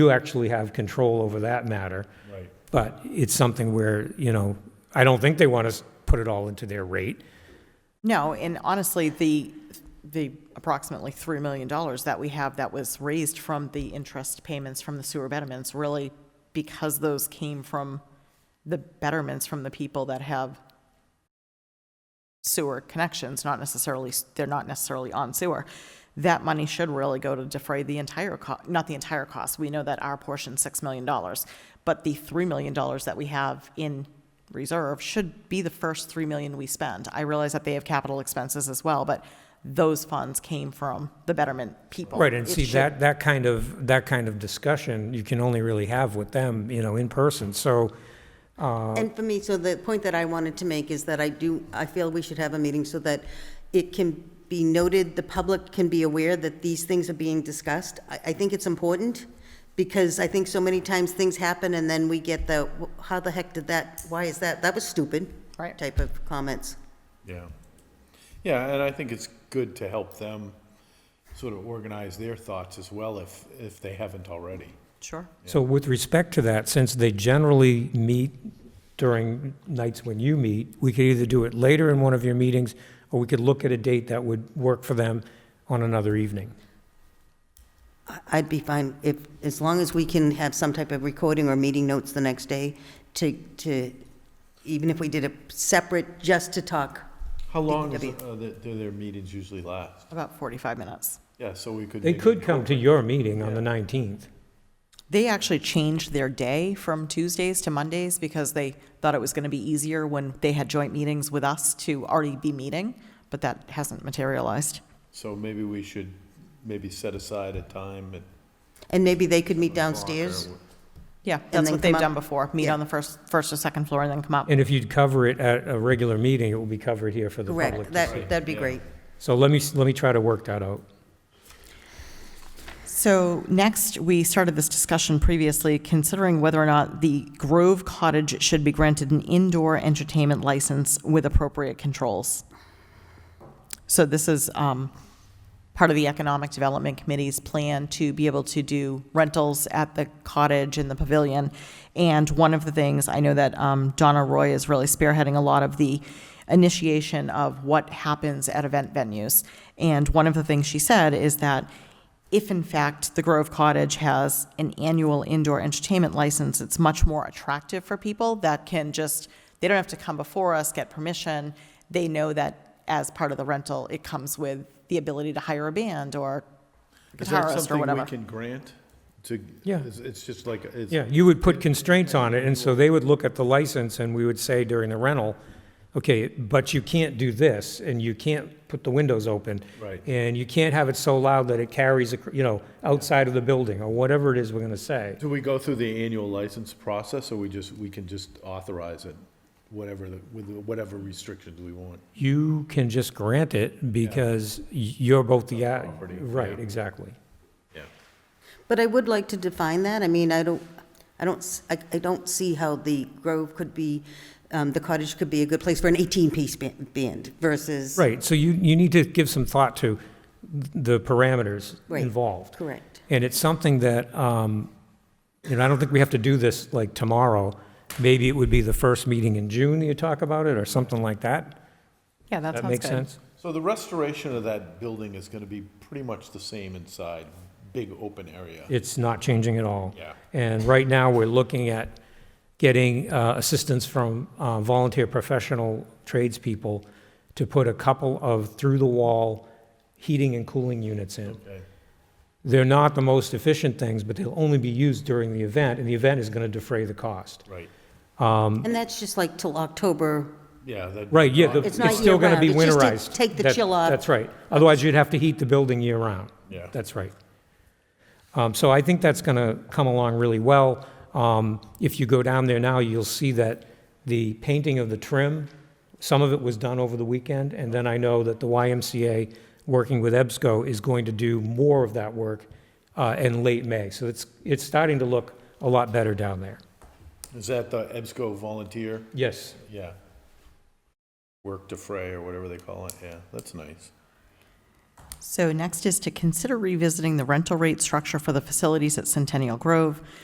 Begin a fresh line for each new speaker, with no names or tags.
you actually have control over that matter.
Right.
But it's something where, you know, I don't think they want us to put it all into their rate.
No, and honestly, the, the approximately $3 million that we have that was raised from the interest payments from the sewer betterments, really because those came from the betterments from the people that have sewer connections, not necessarily, they're not necessarily on sewer. That money should really go to defray the entire cost, not the entire cost. We know that our portion, $6 million. But the $3 million that we have in reserve should be the first 3 million we spend. I realize that they have capital expenses as well, but those funds came from the betterment people.
Right, and
It
see,
should-
that, that kind of, that kind of discussion, you can only really have with them, you know, in person. So,
And for me, so the point that I wanted to make is that I do, I feel we should have a meeting so that it can be noted, the public can be aware that these things are being discussed. I, I think it's important, because I think so many times things happen and then we get the, how the heck did that, why is that, that was stupid.
Right.
Type of comments.
Yeah. Yeah, and I think it's good to help them sort of organize their thoughts as well if, if they haven't already.
Sure.
so with respect to that, since they generally meet during nights when you meet, we could either do it later in one of your meetings, or we could look at a date that would work for them on another evening.
I- I'd be fine if, as long as we can have some type of recording or meeting notes the next day to, to, even if we did it separate, just to talk.
How long is,
DPW.
uh, the- do their meetings usually last?
About 45 minutes.
Yeah, so we could.
They
maybe
could come to your meeting on the 19th.
They actually changed their day from Tuesdays to Mondays because they thought it was going to be easier when they had joint meetings with us to already be meeting, but that hasn't materialized.
So maybe we should, maybe set aside a time at.
And maybe they could meet downstairs.
Yeah, that's
then
what they've
come up-
done before, meet on the first, first or second floor and then come up.
And if you'd cover it at a regular meeting, it will be covered here for the public.
Correct,
to see.
that, that'd be
Yeah.
great.
So let me, s- let me try to work that out.
So next, we started this discussion previously, considering whether or not the Grove Cottage should be granted an indoor entertainment license with appropriate controls. So this is um, part of the Economic Development Committee's plan to be able to do rentals at the cottage and the pavilion. And one of the things, I know that um, Donna Roy is really spearheading a lot of the initiation of what happens at event venues. And one of the things she said is that if in fact the Grove Cottage has an annual indoor entertainment license, it's much more attractive for people that can just, they don't have to come before us, get permission. They know that as part of the rental, it comes with the ability to hire a band or
Is that
guitarist or
something
whatever.
we can grant to?
Yeah.
It's, it's just like, it's.
Yeah, you would put constraints on it, and so they would look at the license, and we would say during the rental, okay, but you can't do this, and you can't put the windows open.
Right.
And you can't have it so loud that it carries, ac- you know, outside of the building, or whatever it is we're going to say.
Do we go through the annual license process or we just, we can just authorize it, whatever, the with whatever restrictions we want?
You can just grant it because y- you're both the, a-
Property,
right,
yeah.
exactly.
Yeah.
But I would like to define that. I mean, I don't, I don't, s- I I don't see how the Grove could be, um, the cottage could be a good place for an 18-piece ban- band versus.
Right, so you, you need to give some thought to the parameters
Right.
involved.
Correct.
And it's something that, um, you know, I don't think we have to do this like tomorrow. Maybe it would be the first meeting in June that you talk about it, or something like that.
Yeah, that
That
sounds
makes
good.
sense?
So the restoration of that building is gonna be pretty much the same inside, big open area.
It's not changing at all.
Yeah.
And right now, we're looking at getting uh, assistance from uh, volunteer professional tradespeople to put a couple of through-the-wall heating and cooling units in.
Okay.
They're not the most efficient things, but they'll only be used during the event, and the event is going to defray the cost.
Right,
And that's just like till October.
yeah, that.
Right, yeah, the-
It's not
it's still going to be
year-round,
winterized.
it's just to take the
That-
chill off.
That's right. Otherwise, you'd have to heat the building year-round.
Yeah.
That's right. Um, So I think that's going to come along really well. Um, If you go down there now, you'll see that the painting of the trim, some of it was done over the weekend, and then I know that the YMCA, working with E EBSCO, is going to do more of that work uh, in late May. So it's, it's starting to look a lot better down there.
Is that the EBSCO volunteer?
Yes.
Yeah. Work to fray or whatever they call it, yeah, that's nice.
So next is to consider revisiting the rental rate structure for the facilities at Centennial Grove.